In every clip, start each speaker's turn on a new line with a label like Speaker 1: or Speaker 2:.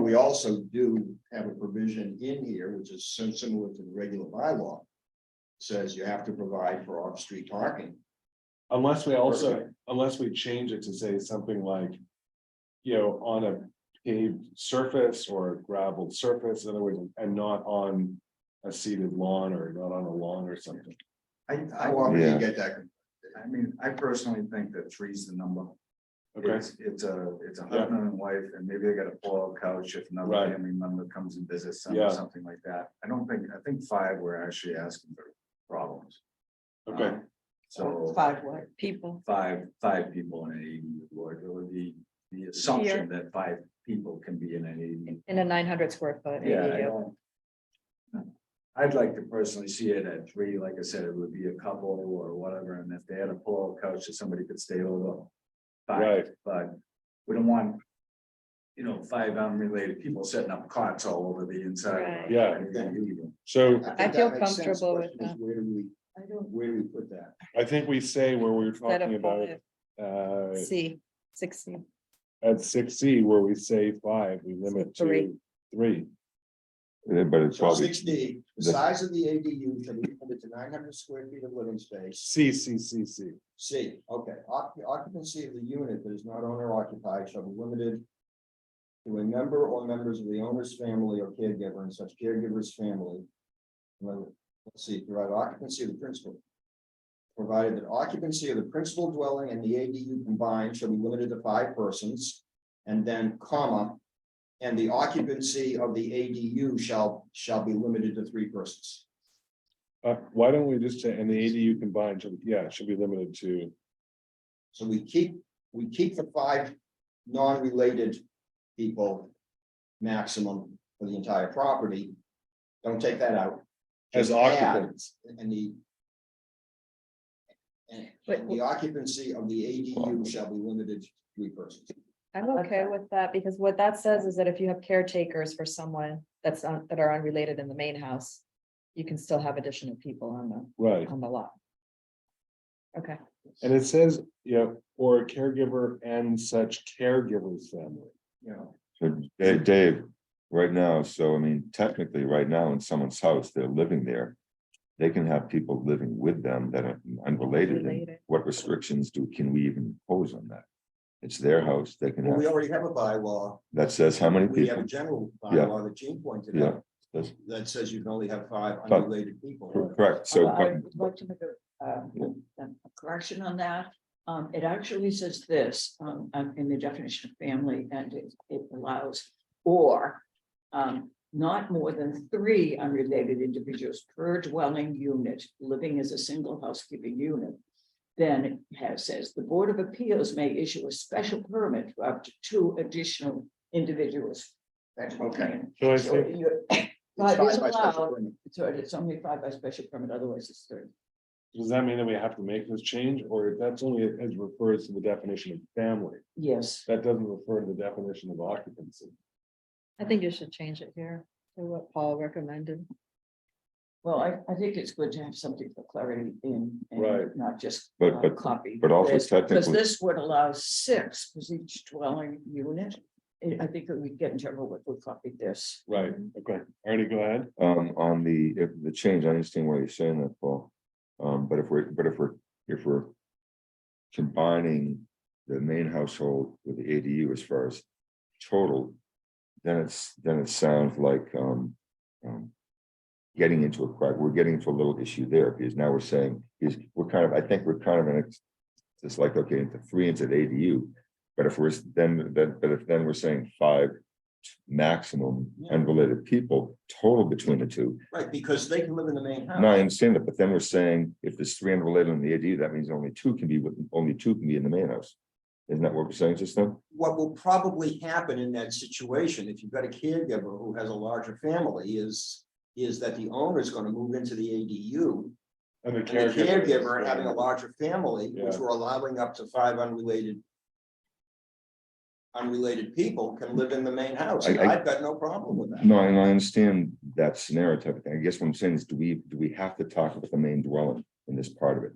Speaker 1: we also do have a provision in here, which is so similar to the regular bylaw. Says you have to provide for off-street parking.
Speaker 2: Unless we also, unless we change it to say something like. You know, on a paved surface or a gravelled surface, in other words, and not on. A seeded lawn or not on a lawn or something.
Speaker 3: I, I,
Speaker 1: How often do
Speaker 4: Yeah.
Speaker 1: you get that?
Speaker 3: I mean, I personally think that three's the number.
Speaker 2: Okay,
Speaker 3: It's, it's a, it's a
Speaker 2: Yeah.
Speaker 3: husband and wife, and maybe they got a pull-out couch if another
Speaker 2: Right.
Speaker 3: family member comes and visits them
Speaker 2: Yeah.
Speaker 3: or something like that. I don't think, I think five, we're actually asking for problems.
Speaker 4: uh,
Speaker 2: okay,
Speaker 3: Um, So
Speaker 5: Five what? People.
Speaker 3: five, five people in an ADU, or it would be the assumption that five people can be in an ADU.
Speaker 5: In a nine hundred square foot.
Speaker 3: Yeah, I
Speaker 5: ADU.
Speaker 3: don't. I'd like to personally see it at three, like I said, it would be a couple or whatever, and if they had a pull-out couch, that somebody could stay over. Five,
Speaker 2: right,
Speaker 3: but we don't want. You know, five unrelated people setting up cots all over the inside.
Speaker 5: Right.
Speaker 2: Yeah. so
Speaker 1: think
Speaker 5: feel
Speaker 1: that makes sense.
Speaker 5: comfortable with
Speaker 1: Question is,
Speaker 5: that.
Speaker 1: Where do we, where do we put that?
Speaker 2: I think we say where we were
Speaker 5: Instead
Speaker 2: talking
Speaker 5: of
Speaker 2: about.
Speaker 5: five,
Speaker 2: Uh,
Speaker 5: C, six C.
Speaker 2: at six C where we say five, we limit
Speaker 5: Three.
Speaker 2: to three.
Speaker 4: Yeah, But it's
Speaker 1: So
Speaker 4: probably,
Speaker 1: six D, the
Speaker 4: the-
Speaker 1: size of the ADU shall be limited to nine hundred square feet of living space.
Speaker 2: C, C, C, C.
Speaker 1: C, okay, Occ- occupancy of the unit that is not owner occupied shall be limited. To a member or members of the owner's family or caregiver and such caregiver's family. Well, Let's see, provide occupancy of the principal. Provided that occupancy of the principal dwelling and the ADU combined shall be limited to five persons. And then comma. And the occupancy of the ADU shall, shall be limited to three persons.
Speaker 2: Uh, why don't we just say, and the ADU combined, should- yeah, it should be limited to,
Speaker 1: So we keep, we keep the five non-related people maximum for the entire property. Don't take that out.
Speaker 2: as
Speaker 1: Just add
Speaker 2: occupants.
Speaker 1: And the and
Speaker 5: But-
Speaker 1: the occupancy of the ADU shall be limited to three persons.
Speaker 5: I'm okay with that because what that says is that if you have caretakers for someone that's on, that are unrelated in the main house. You can still have additional people on the,
Speaker 2: Right,
Speaker 5: on the lot. Okay,
Speaker 2: and it says, yeah, or a caregiver and such caregiver's family.
Speaker 1: You know,
Speaker 4: so Dave, Dave, right now, so I mean, technically, right now, in someone's house, they're living there. They can have people living with them that are unrelated, and
Speaker 5: Related.
Speaker 4: what restrictions do, can we even impose on that? It's their house, they can
Speaker 1: well, we
Speaker 4: have,
Speaker 1: already have a bylaw,
Speaker 4: that says how many
Speaker 1: we have a
Speaker 4: people,
Speaker 1: general
Speaker 4: Yeah.
Speaker 1: bylaw that Gene pointed
Speaker 4: yeah,
Speaker 1: out, that says you can only have five
Speaker 4: But-
Speaker 1: unrelated people.
Speaker 4: correct, so,
Speaker 6: Uh, I
Speaker 4: but-
Speaker 6: would like to make a, uh, a correction on that. Um, it actually says this, um, um, in the definition of family, and it, it allows or um, not more than three unrelated individuals per dwelling unit, living as a single housekeeping unit. Then it has, says, the Board of Appeals may issue a special permit for up to two additional individuals.
Speaker 1: Okay.
Speaker 2: So I
Speaker 6: So
Speaker 2: think,
Speaker 6: you-
Speaker 1: It's
Speaker 6: But
Speaker 1: five
Speaker 6: it's
Speaker 1: by special
Speaker 6: allowed,
Speaker 1: permit.
Speaker 6: so it's only five by special permit, otherwise it's three.
Speaker 2: does that mean that we have to make this change, or that's only as refers to the definition of family?
Speaker 6: Yes.
Speaker 2: That doesn't refer to the definition of occupancy.
Speaker 5: I think you should change it here to what Paul recommended.
Speaker 6: Well, I, I think it's good to have something for clarity in,
Speaker 2: Right.
Speaker 6: and not just.
Speaker 4: But-
Speaker 6: uh,
Speaker 4: but-
Speaker 6: Copy.
Speaker 4: but also
Speaker 6: Because
Speaker 4: technically-
Speaker 6: this would allow six, because each dwelling unit, I I think that we get in trouble with, we copied this.
Speaker 2: Right, okay, Ernie, go ahead.
Speaker 4: um, on the, if the change, I understand why you're saying that, Paul. Um, but if we're, but if we're, if we're combining the main household with the ADU as far as total, then it's, then it sounds like, um, um, getting into a crack, we're getting into a little issue there, because now we're saying, is, we're kind of, I think we're kind of in a, it's like, okay, into three into the ADU, but if we're, s- then, then, but if then we're saying five maximum unrelated people total between the two,
Speaker 1: Right, because they can live in the main house.
Speaker 4: no,
Speaker 2: Oh.
Speaker 4: I understand that, but then we're saying if there's three unrelated in the ADU, that means only two can be, with only two can be in the main house. Isn't that what we're saying just now?
Speaker 1: what will probably happen in that situation, if you've got a caregiver who has a larger family, is. Is that the owner is gonna move into the ADU, and
Speaker 2: And the
Speaker 1: the
Speaker 2: caregiver.
Speaker 1: caregiver having a larger family, which
Speaker 2: Yeah.
Speaker 1: we're allowing up to five unrelated. Unrelated people can live in the main house, and
Speaker 4: I- I-
Speaker 1: I've got no problem with that.
Speaker 4: No, and I understand that scenario type of thing. I guess what I'm saying is, do we, do we have to talk about the main dwelling in this part of it?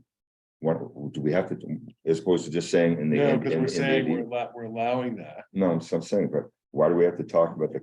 Speaker 4: What, do we have to, do- as opposed to just saying in the.
Speaker 2: No,
Speaker 4: in-
Speaker 2: because
Speaker 4: in-
Speaker 2: we're
Speaker 4: in the
Speaker 2: saying
Speaker 4: ADU?
Speaker 2: we're allo- we're allowing that.
Speaker 4: No, I'm I'm saying, but why do we have to talk about the